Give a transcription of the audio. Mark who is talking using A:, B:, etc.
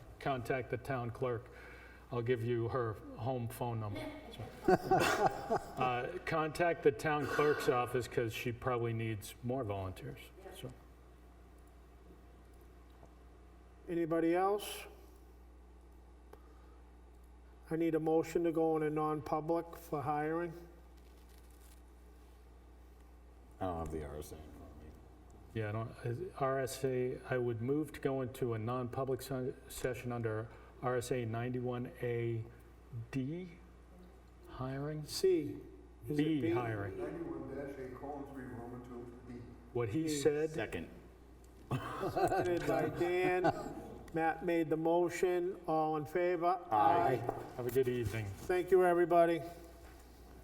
A: contact the town clerk. I'll give you her home phone number. Uh, Contact the town clerk's office because she probably needs more volunteers. So,
B: Anybody else? I need a motion to go in a non-public for hiring.
C: I don't have the RSA in front of me.
A: yeah, I don't, is- RSA, I would move to go into a non-public se- session under RSA 91AD hiring?
B: C. is it
A: B hiring.
D: Ninety-one dash eight colon three Roman two B.
A: What he said,
C: Second.
B: Seconded by Dan. Matt made the motion. All in favor?
C: Aye.
A: have a good evening.
B: Thank you, everybody.